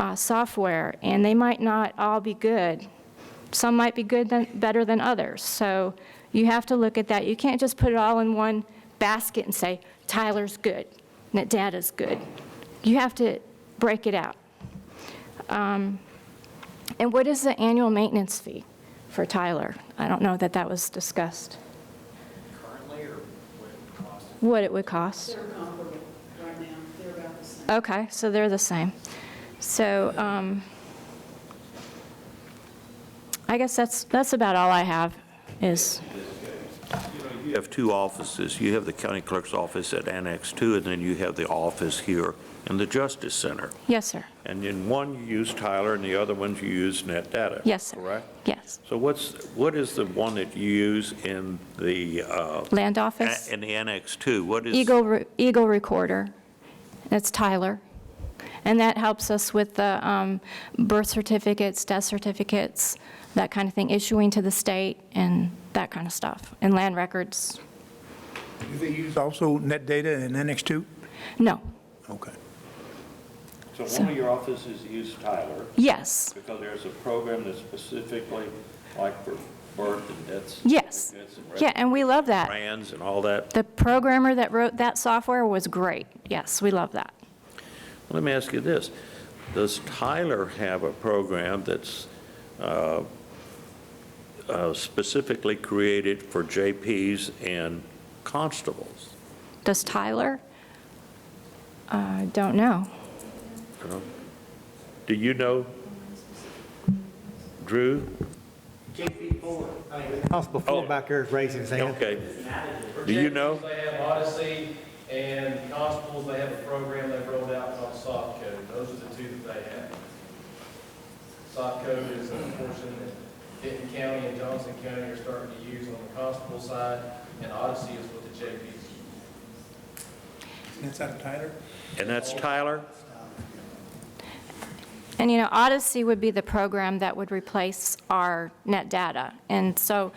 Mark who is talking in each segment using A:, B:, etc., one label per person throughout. A: uh, software, and they might not all be good. Some might be good, than- better than others. So you have to look at that. You can't just put it all in one basket and say, Tyler's good, and Data's good. You have to break it out. Um, And what is the annual maintenance fee for Tyler? I don't know that that was discussed,
B: currently or what it costs?
A: what it would cost.
C: They're comparable right now, they're about the same.
A: Okay, so they're the same. So um, I guess that's, that's about all I have is,
D: You have two offices. You have the county clerk's office at Annex 2, and then you have the office here in the Justice Center.
A: yes, sir.
D: And in one, you use Tyler, and the other ones you use Net Data.
A: Yes, sir.
D: Correct?
A: Yes.
D: So what's, what is the one that you use in the, uh,
A: Land
D: a-
A: office,
D: in the Annex 2? What is?
A: Eagle, Re- Eagle Recorder. That's Tyler. And that helps us with the um, birth certificates, death certificates, that kind of thing, issuing to the state and that kind of stuff, and land records.
E: Do they use also net data and Annex 2?
A: No,
E: Okay.
D: So one of your offices use Tyler,
A: yes,
D: because there's a program that's specifically like for birth and deaths.
A: yes. Yeah, and we love that.
D: Brands and all that.
A: The programmer that wrote that software was great. Yes, we love that.
D: Let me ask you this. Does Tyler have a program that's uh, uh, specifically created for JPs and constables?
A: Does Tyler? I don't know.
D: you know? Do you know, Drew?
B: JP Fuller.
F: Constable Fuller
D: Oh.
F: back there is raising his hand.
D: Okay. Do you know?
G: They have Odyssey and Constables, they have a program they've rolled out called soft code. Those are the two that they have. Soft code is a portion that Denton County and Johnson County are starting to use on the constable side, and Odyssey is what the JPs use.
E: That's out of Tyler?
D: And that's Tyler?
A: And, you know, Odyssey would be the program that would replace our net data. And so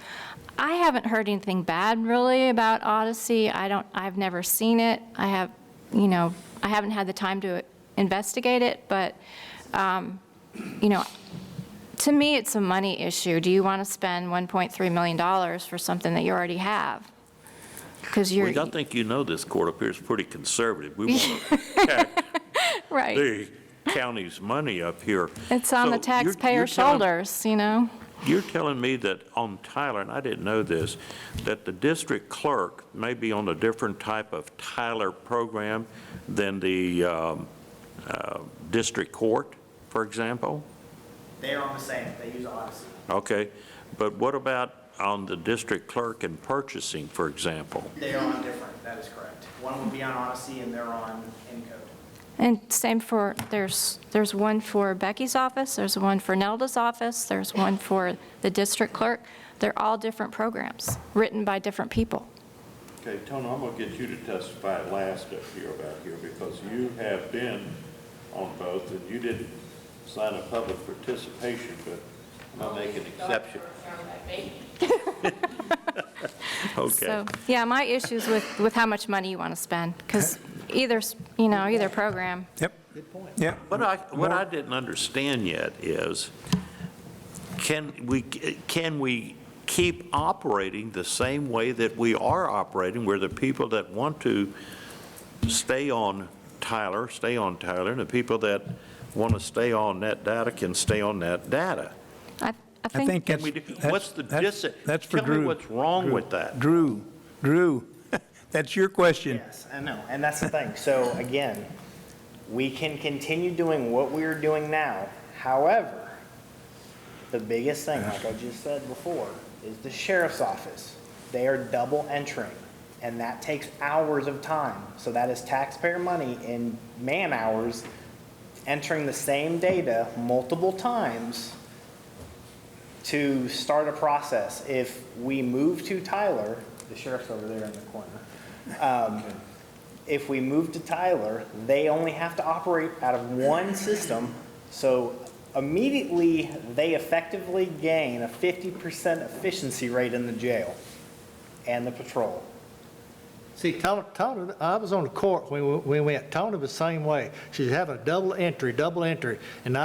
A: I haven't heard anything bad really about Odyssey. I don't, I've never seen it. I have, you know, I haven't had the time to investigate it, but, um, you know, to me, it's a money issue. Do you want to spend $1.3 million for something that you already have? Because you're,
D: Well, I think you know this court up here is pretty conservative. We want to protect
A: right.
D: the county's money up here.
A: It's on the
D: So you're- you're
A: taxpayer's
D: telling-
A: shoulders, you know?
D: You're telling me that on Tyler, and I didn't know this, that the district clerk may be on a different type of Tyler program than the um, uh, district court, for example?
B: They're on the same, they use Odyssey.
D: Okay, but what about on the district clerk and purchasing, for example?
B: They are on different, that is correct. One would be on Odyssey and they're on Encode.
A: And same for, there's, there's one for Becky's office, there's one for Nelda's office, there's one for the district clerk. They're all different programs, written by different people.
D: Okay, Tony, I'm going to get you to testify last up here about here, because you have been on both, and you didn't sign a public participation, but I'm going to make an exception. Okay.
A: So, yeah, my issue's with, with how much money you want to spend, because either, s- you know, either program,
E: Yep. Good point. Yep.
D: What I, what I didn't understand yet is, can we, can we keep operating the same way that we are operating, where the people that want to stay on Tyler, stay on Tyler, and the people that want to stay on net data can stay on net data?
A: I, I
E: I
A: think,
E: think
D: Can
E: that's.
D: we do-
E: that's-
D: what's the
E: that's-
D: dis-
E: That's for
D: tell me
E: Drew.
D: what's wrong
E: Drew.
D: with that.
E: Drew, Drew, that's your question.
B: Yes, I know, and that's the thing. So again, we can continue doing what we are doing now. However, the biggest thing, like I just said before, is the sheriff's office. They are double entering, and that takes hours of time. So that is taxpayer money in man-hours entering the same data multiple times to start a process. If we move to Tyler, the sheriff's over there in the corner. Um, If we move to Tyler, they only have to operate out of one system. So immediately, they effectively gain a 50% efficiency rate in the jail and the patrol.
F: See, Tony, Tony, I was on the court when we- we went, Tony was the same way. She's having a double entry, double entry, and I